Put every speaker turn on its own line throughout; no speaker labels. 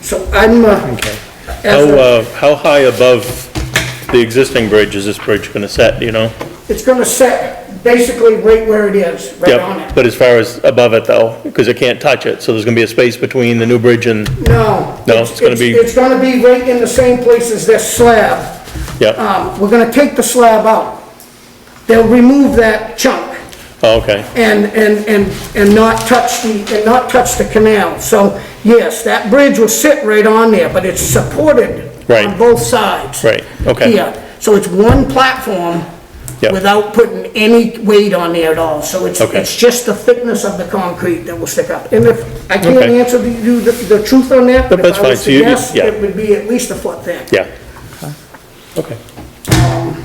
So I'm, uh,
Okay.
as
How,
a-
uh, how high above the existing bridge is this bridge gonna set, do you know?
it's gonna set basically right where it is, right on
Yep,
it.
but as far as above it though, because it can't touch it, so there's gonna be a space between the new bridge and,
No.
No, it's gonna be-
It's gonna be right in the same place as this slab.
yeah,
Um, we're gonna take the slab out. They'll remove that chunk
oh, okay.
and, and, and, and not touch the, and not touch the canal. So, yes, that bridge will sit right on there, but it's supported
Right.
on both sides.
Right, okay.
Here, so it's one platform
Yep.
without putting any weight on there at all. So it's,
Okay.
it's just the thickness of the concrete that will stick up. And if, I can't
Okay.
answer the- you the, the truth on that, but if
That's
I
fine.
was
So
to
you- you-
guess,
yeah.
it would be at least a foot thick.
Yeah. Okay.
Um,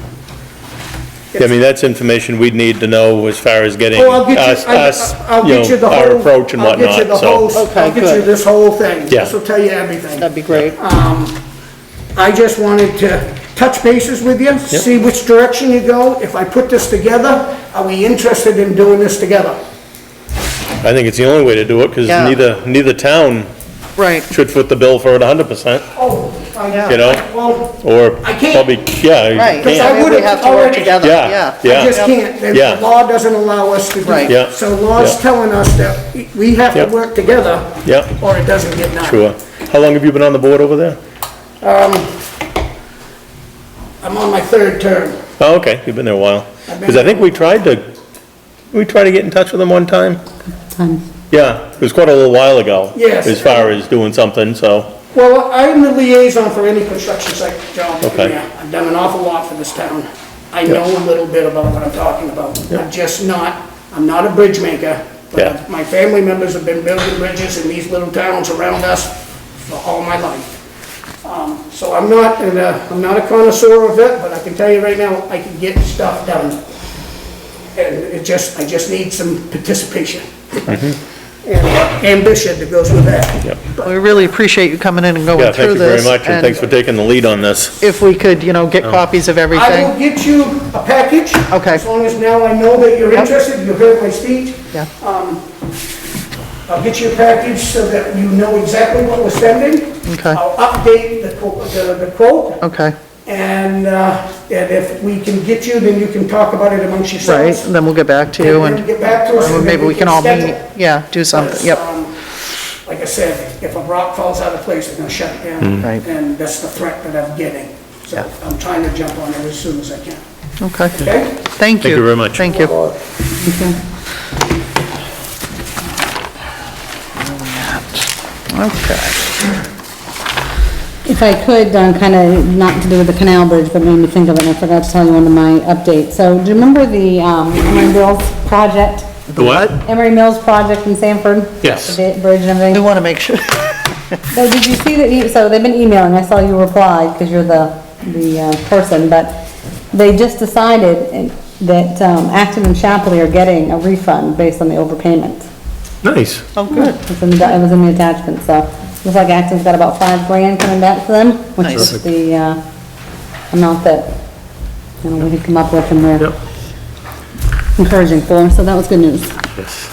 Yeah, I mean, that's information we'd need to know as far as getting
Oh, I'll get you,
us, us,
I- I'll
you
get you the
know,
whole.
our approach and
I'll get you the
whatnot, so.
whole- I'll
Okay,
get you
good.
this whole thing.
Yeah.
This will tell you everything.
That'd be great.
Uh, I just wanted to touch bases with you, see which direction you go. If I put this together, are we interested in doing this together?
I think it's the only way to do it, because
Yeah.
neither, neither town
Right.
should foot the bill for it hundred percent,
Oh, I know.
You know?
Well,
or
I can't.
probably, yeah. you
Right.
Because I
can't.
mean,
would've
We have to work
already-
together,
Yeah,
yeah.
I
yeah,
just can't. The-
Yeah.
The law doesn't allow us to do
Right.
that.
Yeah.
So law's
Yeah.
telling us that we have to
Yep.
work together.
Yep.
Or it doesn't get done.
sure. How long have you been on the board over there?
I'm on my third term.
Oh, okay, you've been there a while.
I've been
Because I think we tried to, we tried to get in touch with them one time. Yeah, it was quite a little while ago.
Yes.
As far as doing something, so,
Well, I'm the liaison for any construction site job. in
Okay.
there. I've done an awful lot for this town. I know a little bit about what I'm talking about. I'm just not, I'm not a bridge maker,
Yeah.
but my family members have been building bridges in these little towns around us for all my life. Um, So I'm not, an, uh, I'm not a connoisseur of it, but I can tell you right now, I can get stuff done. And it just, I just need some participation.
Mm-hmm.
And ambition that goes with that.
yep.
We really appreciate you coming in and going
Yeah,
through
thank you
this.
very much, and thanks Oh. for taking the lead on this.
If we could, you know, get copies of
I will
everything.
get you a package.
Okay.
As long as now I know that you're interested, you heard my speech.
Yeah.
I'll get you a package so that you know exactly what we're spending.
Okay.
I'll update the quote, the the quote,
Okay,
and, uh, and if we can get you, then you can talk about it amongst
right,
yourselves.
and then we'll get back to you
And
and
get back to us.
or
and
maybe we can all meet,
schedule.
yeah, do something, yep.
Um, Like I said, if a rock falls out of place, they're gonna shut it down.
Mm. Right.
And that's the threat that I'm getting. So I'm trying to jump on it as soon as I can,
Okay,
okay?
thank you.
you very much.
Thank you. Okay,
If I could, kind of not to do with the canal bridge, but made me think of it, and I forgot to tell you under my update. So do you remember the um, Emery Mills project?
The what?
Emery Mills project in Sanford?
Yes.
The bi- bridge and
we
everything.
want to make sure,
So did you see that, e- so they've been emailing, I saw you replied, because you're the, the uh, person, but they just decided and- that um, Acton and Chapley are getting a refund based on the overpayment.
Nice.
oh, good,
It's in the, it was in the attachment, so, looks like Acton's got about five grand coming back to them, which
Nice.
is the, uh, amount that, you know, we had come up with and we're encouraging for, so that was good news.
Yes.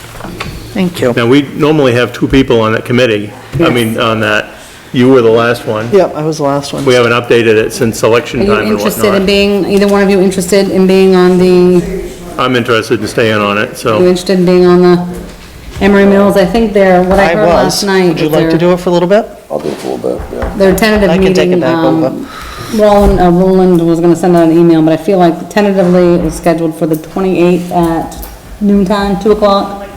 thank you.
Now, we normally have two people on that committee, I mean, on that. You were the last one.
Yep, I was the last one.
We haven't updated it since
Are
election
you
time and
interested in
whatnot.
being, either one of you interested in being on the,
I'm interested in staying on it,
you
so,
interested in being on the Emery Mills? I think they're, what I
I
heard last
was.
night.
Would you like to do it for a little bit?
I'll do it for a little bit, yeah.
Their
I
tentative
can take it
meeting,
back
um, Roland, uh, Roland was gonna send out an email, but I feel like tentatively it was scheduled for the twenty-eighth at noon time, two o'clock.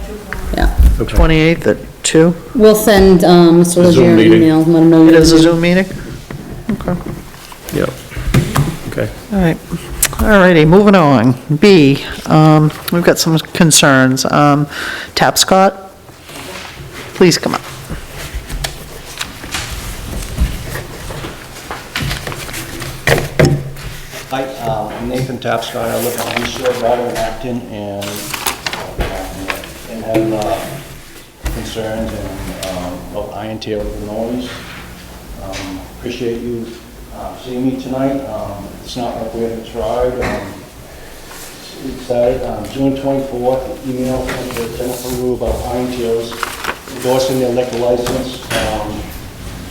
Yeah,
28th at 2?
we'll send, um, Mr.
Zoom
Legere an
meeting.
email, and let him know.
It
you're
is a
gonna-
Zoom meeting? Okay,
yeah. Okay.
all right. All righty, moving on. B, um, we've got some concerns. Um, Tapscott, please come up.
Hi, um, I'm Nathan Tapscott, I live on East Shore, Rockland, Acton, and, and have, uh, concerns and, um, about iron tail with the noise. Um, Appreciate you, uh, seeing me tonight, um, it's not like we haven't tried, um, excited, um, June twenty-fourth, email from Jennifer Rue about iron tails endorsing their liquor license, um,